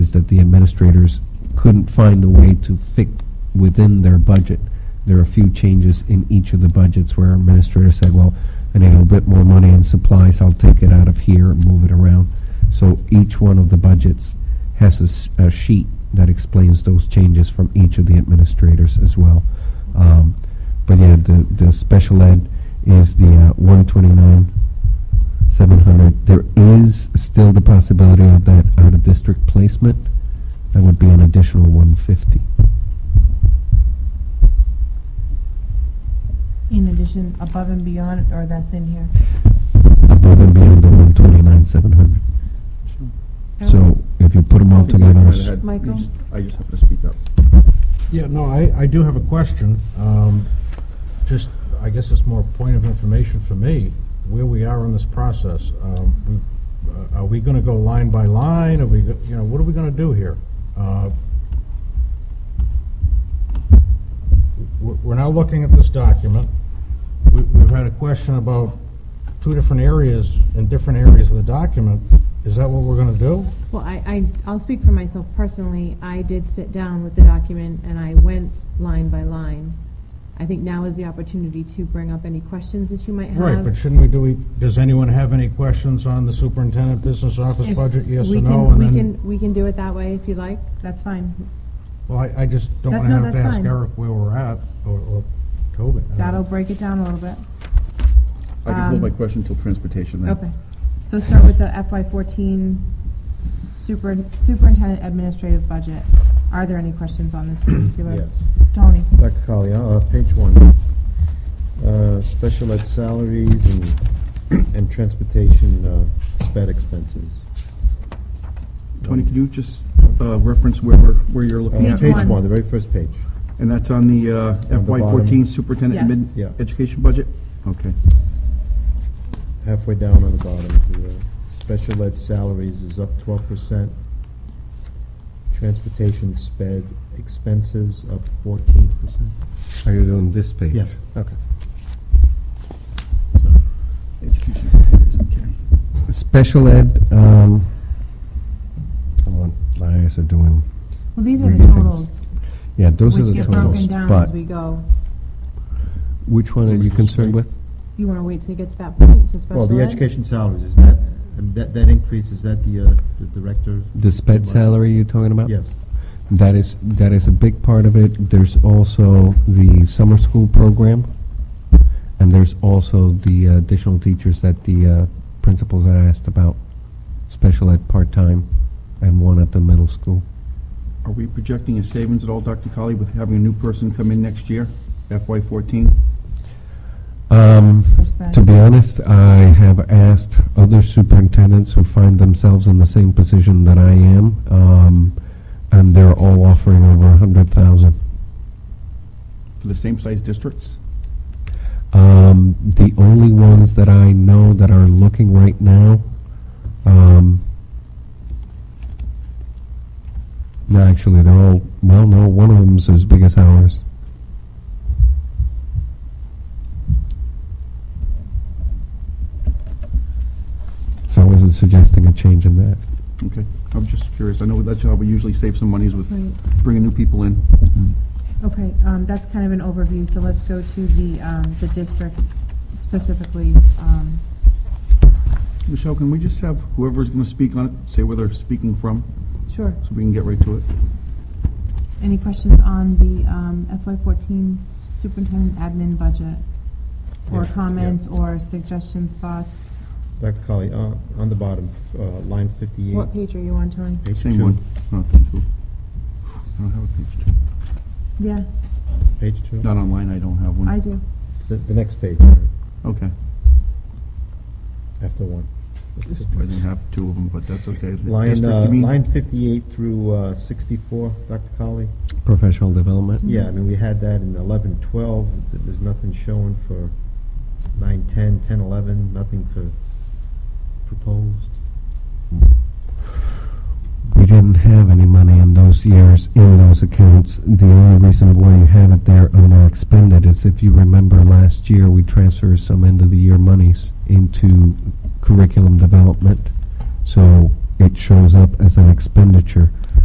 is that the administrators couldn't find the way to fit within their budget. There are a few changes in each of the budgets where administrators said, well, I need a little bit more money in supplies, I'll take it out of here and move it around. So each one of the budgets has a s- a, sheet that explains those changes from each of the administrators as well. Um, but yeah, the, the special ed is the uh, 129, 700. There is still the possibility of that out of district placement. That would be an additional 150. In addition, above and beyond, or that's in here? Above and beyond the 129, 700. Oh. So Um, if you put them all together, it's- Go ahead. Michael? You just- I just happen to speak up. Yeah, no, I, I do have a question. Um, Just, I guess it's more a point of information for me, where we are in this process. Um, we- uh, Are we going to go line by line? Are we, go- you know, what are we going to do here? Uh, we- We're now looking at this document. We- We've had a question about two different areas, in different areas of the document. Is that what we're going to do? Well, I, I, I'll speak for myself personally. I did sit down with the document and I went line by line. I think now is the opportunity to bring up any questions that you might have. Right, but shouldn't we do, we- does anyone have any questions on the superintendent business office If budget, yes we or can- no? And We then, can, we can do it that way if you like. That's fine. well, I, I just don't That- want to no, have to that's ask fine. Eric where we're at, or, or Tobin. Uh, I That'll don't- break it down a little bit. I can hold Um, my question till transportation then. Okay. So start with the FY fourteen super, superintendent administrative budget. Are there any questions on this particular? Yes. Tony? Dr. Colley, uh, page one, uh, special ed salaries and, and transportation, uh, sped expenses. Tony, can you just uh, reference where we're, where you're Uh, looking at? Page one. one, the very first page. And that's on the uh, On the FY14 bottom. superintendent Yes. mid Yeah. education budget? Okay. halfway down on the bottom, the uh, special ed salaries is up twelve percent. Transportation sped expenses up fourteen percent. are you doing this page? Yes. Okay. Education salaries, okay. Special ed, um, hold on, my eyes are doing, Well, these are What the do you think? totals, yeah, those are which the get broken totals, down as but we go. which one are you concerned with? You wanna wait till you get to that point to special Well, the ed? education salaries, is that, and that, that increase, is that the, uh, the director? The sped salary you're talking about? Yes. That is, that is a big part of it. There's also the summer school program, and there's also the uh, additional teachers that the uh, principals had asked about, special ed part-time, and one at the middle school. Are we projecting a savings at all, Dr. Colley, with having a new person come in next year, FY14? Um, For sped. to be honest, I have asked other superintendents who find themselves in the same position that I am, um, and they're all offering over a hundred thousand. For the same size districts? Um, the only ones that I know that are looking right now, um, no, actually, they're all, well, no, one of them's as big as ours. So I wasn't suggesting a change in that. Okay, I'm just curious. I know that's how we usually save some monies with Right. bringing new people in. Okay, um, that's kind of an overview, so let's go to the, um, the district specifically, um, Michelle, can we just have whoever's going to speak on it, say where they're speaking from, sure. so we can get right to it? Any questions on the um, FY14 superintendent admin budget? Or Yeah, yeah. comments, or suggestions, thoughts? Dr. Colley, uh, on the bottom, uh, line fifty-eight. What page are you on, Tony? page Same two. one? No, two. I don't have a page two. Yeah, Page two? Not online, I don't have one. I do. It's The, the next page, all right, Okay. after one. It's I two. didn't have two of them, but that's okay. The Line, district, uh, you mean? line fifty-eight through, uh, sixty-four, Dr. Colley? Professional development? Yeah, I mean, we had that in eleven, twelve, th- there's nothing showing for nine, ten, ten, eleven, nothing for proposed. We didn't have any money in those years in those accounts. The only reason why you have it there under expended is if you remember last year, we transferred some end of the year monies into curriculum development. So it shows up as an expenditure.